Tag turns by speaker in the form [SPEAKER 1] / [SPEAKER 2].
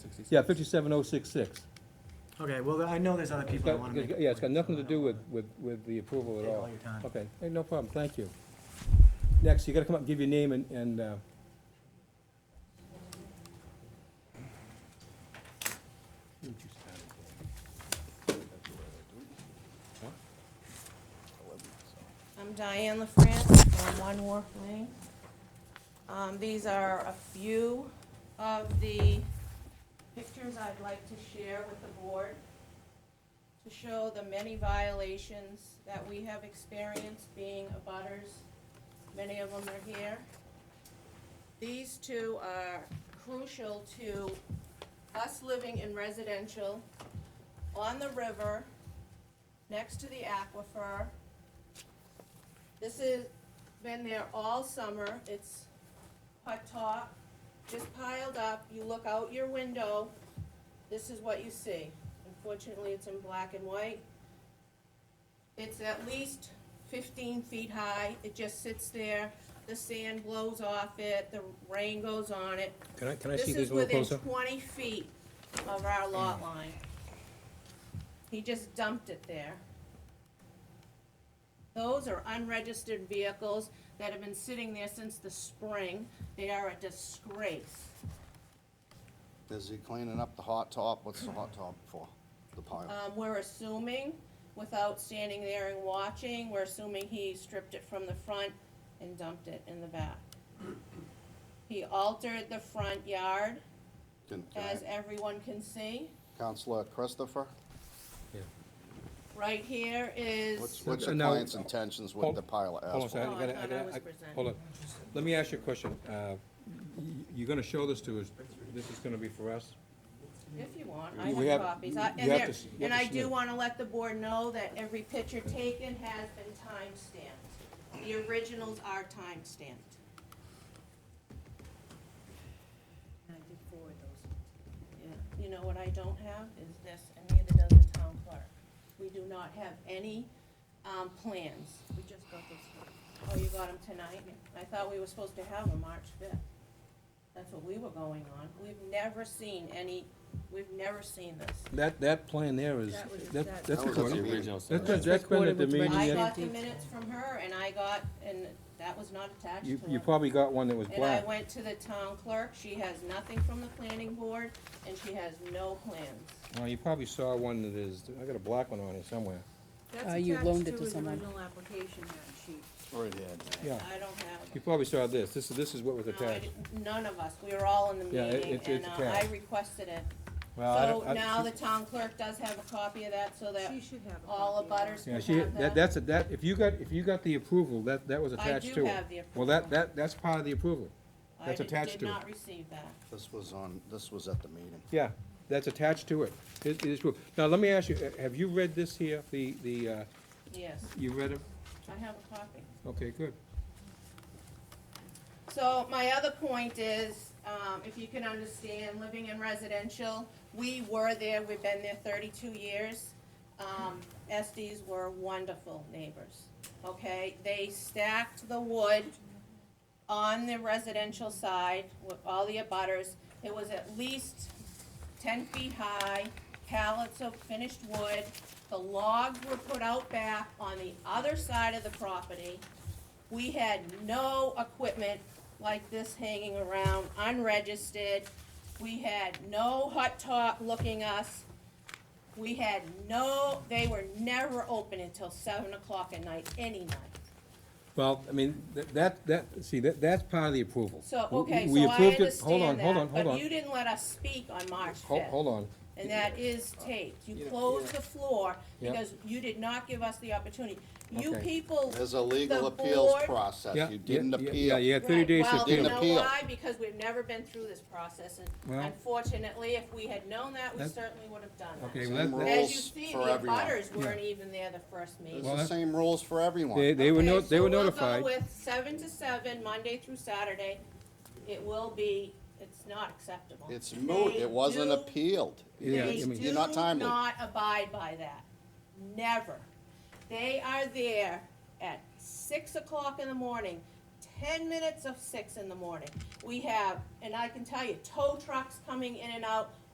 [SPEAKER 1] Yeah, fifty-seven oh six six.
[SPEAKER 2] Okay, well, I know there's other people that wanna make. a
[SPEAKER 1] Yeah, it's got
[SPEAKER 2] point,
[SPEAKER 1] nothing
[SPEAKER 2] so
[SPEAKER 1] to
[SPEAKER 2] I
[SPEAKER 1] do
[SPEAKER 2] don't
[SPEAKER 1] with,
[SPEAKER 2] wanna-
[SPEAKER 1] with, with the approval at
[SPEAKER 2] Take
[SPEAKER 1] all.
[SPEAKER 2] all your time.
[SPEAKER 1] Okay, hey, no problem, thank you. Next, you gotta come up and give your name and, and, uh,
[SPEAKER 3] I'm Diane LaFrance from One Wharf Lane. Um, These are a few of the pictures I'd like to share with the board to show the many violations that we have experienced being abutters. Many of them are here. These two are crucial to us living in residential, on the river, next to the aquifer, this has been there all summer, it's hot top, just piled up, you look out your window, this is what you see. Unfortunately, it's in black and white. It's at least fifteen feet high, it just sits there, the sand blows off it, the rain goes on it.
[SPEAKER 1] can I, can I
[SPEAKER 3] This
[SPEAKER 1] see
[SPEAKER 3] is
[SPEAKER 1] this a little
[SPEAKER 3] within
[SPEAKER 1] closer?
[SPEAKER 3] twenty feet of our lot line. He just dumped it there. Those are unregistered vehicles that have been sitting there since the spring. They are a disgrace.
[SPEAKER 4] Is he cleaning up the hot top? What's the hot top for? The pile?
[SPEAKER 3] Um, we're assuming, without standing there and watching, we're assuming he stripped it from the front and dumped it in the back. He altered the front yard,
[SPEAKER 4] Can- can I-
[SPEAKER 3] as everyone can see.
[SPEAKER 4] Counselor Christopher,
[SPEAKER 3] Right here is.
[SPEAKER 4] what's, what's your
[SPEAKER 1] Uh, now-
[SPEAKER 4] client's intentions with
[SPEAKER 1] Hold-
[SPEAKER 4] the pile of
[SPEAKER 1] Hold on a
[SPEAKER 4] asphalt?
[SPEAKER 1] second, I
[SPEAKER 3] No, I
[SPEAKER 1] gotta- I
[SPEAKER 3] thought I
[SPEAKER 1] gotta-
[SPEAKER 3] was
[SPEAKER 1] I-
[SPEAKER 3] presenting.
[SPEAKER 1] hold on. Let me ask you a question. Uh, y- You're gonna show this to us, this is gonna be for us?
[SPEAKER 3] If you want,
[SPEAKER 1] You-
[SPEAKER 3] I
[SPEAKER 1] we have-
[SPEAKER 3] have copies. I-
[SPEAKER 1] you
[SPEAKER 3] And
[SPEAKER 1] have
[SPEAKER 3] there-
[SPEAKER 1] to s- you have
[SPEAKER 3] and
[SPEAKER 1] to
[SPEAKER 3] I do
[SPEAKER 1] submit.
[SPEAKER 3] want to let the board know that every picture taken has been timestamped. The originals are timestamped.
[SPEAKER 5] And I did forward those.
[SPEAKER 3] You know what I don't have is this, and neither does the town clerk. We do not have any um, plans. We just got this. one. Oh, you got them tonight? I thought we were supposed to have them March 5th. That's what we were going on. We've never seen any, we've never seen this.
[SPEAKER 1] That, that plan there is,
[SPEAKER 5] That was-
[SPEAKER 1] that-
[SPEAKER 5] that-
[SPEAKER 1] that's
[SPEAKER 4] That was at the
[SPEAKER 1] recorded.
[SPEAKER 4] original
[SPEAKER 1] That's been, that's been at the
[SPEAKER 5] Recorded with
[SPEAKER 1] meeting.
[SPEAKER 5] my-
[SPEAKER 3] I
[SPEAKER 1] yet-
[SPEAKER 3] got the
[SPEAKER 5] Empty.
[SPEAKER 3] minutes from her, and I got, and that was not attached to
[SPEAKER 1] You,
[SPEAKER 3] it.
[SPEAKER 1] you probably got one that was
[SPEAKER 3] And I
[SPEAKER 1] black.
[SPEAKER 3] went to the town clerk, she has nothing from the planning board, and she has no plans.
[SPEAKER 1] Well, you probably saw one that is, I got a black one on here somewhere.
[SPEAKER 5] Uh, you loaned it
[SPEAKER 6] That's attached to
[SPEAKER 5] to someone.
[SPEAKER 6] his original application, that sheet.
[SPEAKER 4] Right here. Dan.
[SPEAKER 1] Yeah,
[SPEAKER 3] I don't have,
[SPEAKER 1] you probably saw this. This is, this is what was
[SPEAKER 3] no, I
[SPEAKER 1] attached.
[SPEAKER 3] didn't- none of us, we were all in the
[SPEAKER 1] Yeah, it-
[SPEAKER 3] meeting,
[SPEAKER 1] it's-
[SPEAKER 3] and
[SPEAKER 1] it's
[SPEAKER 3] uh, I
[SPEAKER 1] attached.
[SPEAKER 3] requested it.
[SPEAKER 1] Well, I don't-
[SPEAKER 3] So
[SPEAKER 1] I-
[SPEAKER 3] now the town clerk does have a copy of that, so that
[SPEAKER 6] She should have a
[SPEAKER 3] all
[SPEAKER 6] copy
[SPEAKER 3] the
[SPEAKER 6] of that.
[SPEAKER 3] butters
[SPEAKER 1] Yeah,
[SPEAKER 3] can
[SPEAKER 1] she,
[SPEAKER 3] have
[SPEAKER 1] that, that's, a- that, if you got, if you got the approval, that, that was
[SPEAKER 3] I
[SPEAKER 1] attached
[SPEAKER 3] do
[SPEAKER 1] to it.
[SPEAKER 3] have the
[SPEAKER 1] Well, that,
[SPEAKER 3] approval.
[SPEAKER 1] that, that's part of the approval.
[SPEAKER 3] I
[SPEAKER 1] that's
[SPEAKER 3] did-
[SPEAKER 1] attached to it.
[SPEAKER 3] Did not receive that.
[SPEAKER 4] This was on, this was at the meeting.
[SPEAKER 1] Yeah, that's attached to it. It, it is, true. now, let me ask you, uh, have you read this here, the, the, uh,
[SPEAKER 3] Yes,
[SPEAKER 1] you read it?
[SPEAKER 3] I have a copy.
[SPEAKER 1] Okay, good.
[SPEAKER 3] So my other point is, um, if you can understand, living in residential, we were there, we've been there thirty-two years. Um, Estes were wonderful neighbors, okay? They stacked the wood on the residential side with all the abutters. It was at least ten feet high, pallets of finished wood. The logs were put out back on the other side of the property. We had no equipment like this hanging around, unregistered. We had no hot top looking us. We had no, they were never open until seven o'clock at night, any night.
[SPEAKER 1] Well, I mean, tha- that, that, see, that, that's part of the approval.
[SPEAKER 3] So,
[SPEAKER 1] We-
[SPEAKER 3] okay,
[SPEAKER 1] we
[SPEAKER 3] so I
[SPEAKER 1] approved it. Hold on,
[SPEAKER 3] understand
[SPEAKER 1] hold on,
[SPEAKER 3] that,
[SPEAKER 1] hold
[SPEAKER 3] but
[SPEAKER 1] on.
[SPEAKER 3] you didn't let us speak on March
[SPEAKER 1] Ho-
[SPEAKER 3] fifth.
[SPEAKER 1] Hold on.
[SPEAKER 3] And that is taped.
[SPEAKER 1] You
[SPEAKER 3] You
[SPEAKER 1] know,
[SPEAKER 3] closed
[SPEAKER 1] yeah.
[SPEAKER 3] the floor
[SPEAKER 1] Yeah.
[SPEAKER 3] because you did not give us the opportunity. You
[SPEAKER 1] Okay.
[SPEAKER 3] people.
[SPEAKER 4] There's a legal
[SPEAKER 3] the
[SPEAKER 4] appeals
[SPEAKER 3] board-
[SPEAKER 1] Yeah,
[SPEAKER 4] process. Uh, You
[SPEAKER 1] yeah,
[SPEAKER 4] didn't
[SPEAKER 1] yeah, Yeah,
[SPEAKER 4] appeal.
[SPEAKER 1] you had thirty
[SPEAKER 3] Right,
[SPEAKER 1] days to
[SPEAKER 3] Well, you
[SPEAKER 1] appeal.
[SPEAKER 4] Didn't
[SPEAKER 3] know
[SPEAKER 4] appeal.
[SPEAKER 3] why? Because we've never been through this process, and
[SPEAKER 1] Well-
[SPEAKER 3] unfortunately, if we had known that, we
[SPEAKER 1] That-
[SPEAKER 3] certainly would have done
[SPEAKER 1] Okay,
[SPEAKER 3] that.
[SPEAKER 1] well,
[SPEAKER 4] Same
[SPEAKER 1] that-
[SPEAKER 4] rule.
[SPEAKER 1] that-
[SPEAKER 3] As you
[SPEAKER 4] Rules
[SPEAKER 3] see,
[SPEAKER 4] for
[SPEAKER 3] the
[SPEAKER 4] everyone.
[SPEAKER 3] butters weren't
[SPEAKER 1] Yeah.
[SPEAKER 3] even there the
[SPEAKER 4] There's
[SPEAKER 3] first meeting.
[SPEAKER 1] Well,
[SPEAKER 4] the
[SPEAKER 1] that-
[SPEAKER 4] same rules for
[SPEAKER 1] they,
[SPEAKER 4] everyone.
[SPEAKER 1] they were
[SPEAKER 3] Okay,
[SPEAKER 1] no, they
[SPEAKER 3] so
[SPEAKER 1] were
[SPEAKER 3] we'll go
[SPEAKER 1] notified.
[SPEAKER 3] with seven to seven, Monday through Saturday, it will be, it's not acceptable.
[SPEAKER 4] It's moot.
[SPEAKER 3] They
[SPEAKER 4] It wasn't
[SPEAKER 3] do-
[SPEAKER 4] appealed.
[SPEAKER 1] Yeah,
[SPEAKER 3] They
[SPEAKER 1] I mean-
[SPEAKER 3] do
[SPEAKER 4] You're not timely.
[SPEAKER 3] not abide by that, never. They are there at six o'clock in the morning, ten minutes of six in the morning. We have, and I can tell you, tow trucks coming in and out